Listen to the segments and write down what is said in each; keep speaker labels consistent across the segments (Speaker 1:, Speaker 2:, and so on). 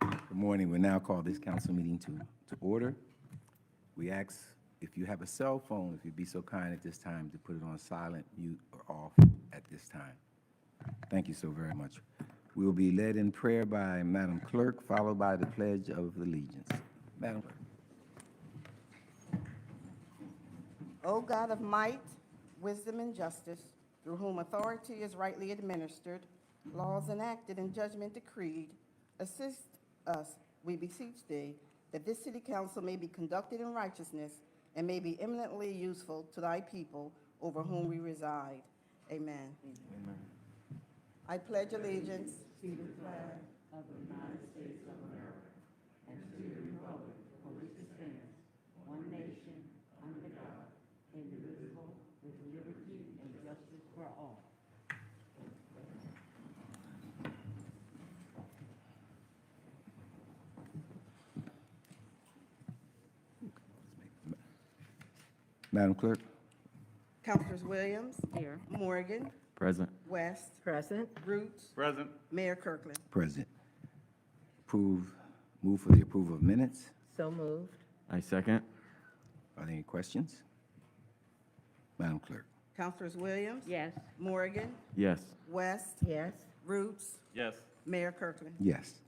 Speaker 1: Good morning. We now call this council meeting to, to order. We ask if you have a cell phone, if you'd be so kind at this time to put it on silent, mute, or off at this time. Thank you so very much. We will be led in prayer by Madam Clerk, followed by the Pledge of Allegiance. Madam Clerk.
Speaker 2: O God of might, wisdom, and justice, through whom authority is rightly administered, laws enacted, and judgment decreed, assist us, we beseech thee, that this city council may be conducted in righteousness and may be eminently useful to thy people over whom we reside. Amen. I pledge allegiance
Speaker 1: Madam Clerk.
Speaker 2: Councilors Williams,
Speaker 3: Here.
Speaker 2: Morgan,
Speaker 1: Present.
Speaker 2: West,
Speaker 3: Present.
Speaker 2: Roots,
Speaker 4: Present.
Speaker 2: Mayor Kirkland.
Speaker 1: Present. Approve, move for the approval of minutes.
Speaker 3: So moved.
Speaker 4: I second.
Speaker 1: Are there any questions? Madam Clerk.
Speaker 2: Councilors Williams,
Speaker 3: Yes.
Speaker 2: Morgan,
Speaker 4: Yes.
Speaker 2: West,
Speaker 3: Yes.
Speaker 2: Roots,
Speaker 4: Yes.
Speaker 2: Mayor Kirkland.
Speaker 1: Yes.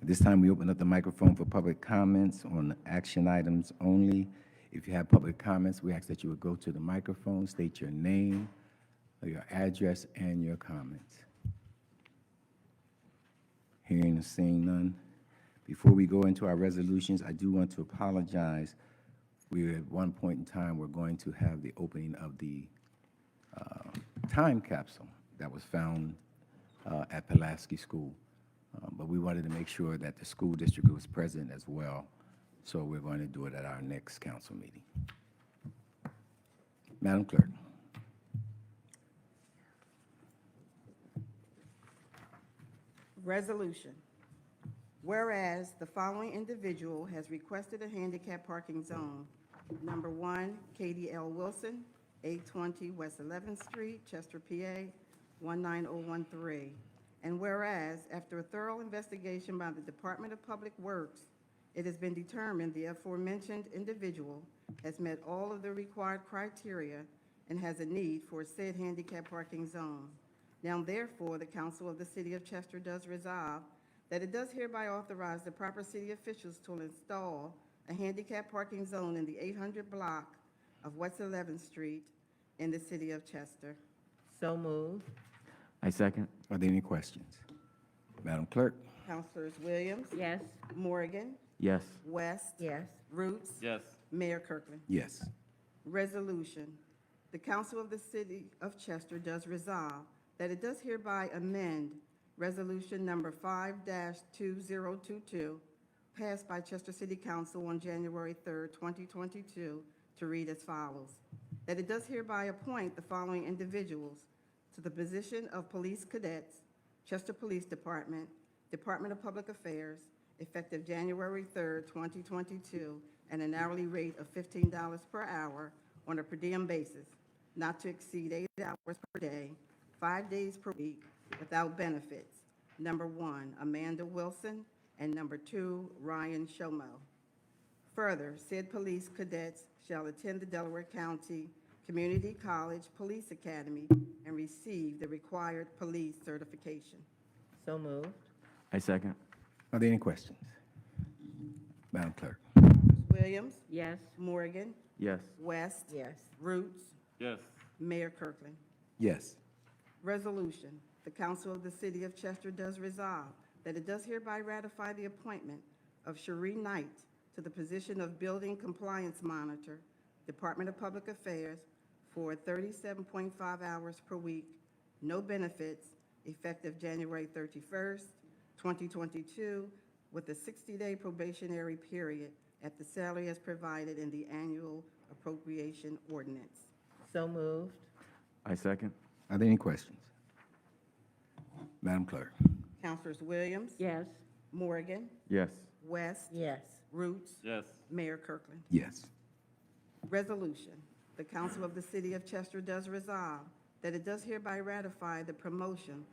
Speaker 1: At this time, we open up the microphone for public comments on action items only. If you have public comments, we ask that you would go to the microphone, state your name, your address, and your comments. Hearing and seeing none. Before we go into our resolutions, I do want to apologize. We, at one point in time, were going to have the opening of the uh, time capsule that was found uh, at Pulaski School. Uh, But we wanted to make sure that the school district was present as well, so we're going to do it at our next council meeting. Madam Clerk.
Speaker 2: Resolution. Whereas the following individual has requested a handicap parking zone. Number one, Katie L. Wilson, 820 West 11th Street, Chester, PA, 19013. And whereas, after a thorough investigation by the Department of Public Works, it has been determined the aforementioned individual has met all of the required criteria and has a need for said handicap parking zone. Now therefore, the council of the city of Chester does resolve that it does hereby authorize the proper city officials to install a handicap parking zone in the 800 block of West 11th Street in the city of Chester.
Speaker 3: So moved.
Speaker 4: I second.
Speaker 1: Are there any questions? Madam Clerk.
Speaker 2: Councilors Williams,
Speaker 3: Yes.
Speaker 2: Morgan,
Speaker 4: Yes.
Speaker 2: West,
Speaker 3: Yes.
Speaker 2: Roots,
Speaker 4: Yes.
Speaker 2: Mayor Kirkland.
Speaker 1: Yes.
Speaker 2: Resolution. The Council of the City of Chester does resolve that it does hereby amend Resolution Number 5-2022, passed by Chester City Council on January 3rd, 2022, to read as follows. That it does hereby appoint the following individuals to the position of Police Cadets, Chester Police Department, Department of Public Affairs, effective January 3rd, 2022, at an hourly rate of $15 per hour on a per diem basis, not to exceed eight hours per day, five days per week, without benefits. Number one, Amanda Wilson, and number two, Ryan Shomo. Further, said police cadets shall attend the Delaware County Community College Police Academy and receive the required police certification.
Speaker 3: So moved.
Speaker 4: I second.
Speaker 1: Are there any questions? Madam Clerk.
Speaker 2: Williams,
Speaker 3: Yes.
Speaker 2: Morgan,
Speaker 4: Yes.
Speaker 2: West,
Speaker 3: Yes.
Speaker 2: Roots,
Speaker 4: Yes.
Speaker 2: Mayor Kirkland.
Speaker 1: Yes.
Speaker 2: Resolution, the Council of the City of Chester does resolve that it does hereby ratify the appointment of Cherie Knight to the position of Building Compliance Monitor, Department of Public Affairs, for 37.5 hours per week, no benefits, effective January 31st, 2022, with a 60-day probationary period at the salary as provided in the annual appropriation ordinance.
Speaker 3: So moved.
Speaker 4: I second.
Speaker 1: Are there any questions? Madam Clerk.
Speaker 2: Councilors Williams?
Speaker 3: Yes.
Speaker 2: Morgan?
Speaker 4: Yes.
Speaker 2: West,
Speaker 3: Yes.
Speaker 2: Roots,
Speaker 4: Yes.
Speaker 2: Mayor Kirkland.
Speaker 1: Yes.
Speaker 2: Resolution, the Council of the City of Chester does resolve that it does hereby ratify the promotion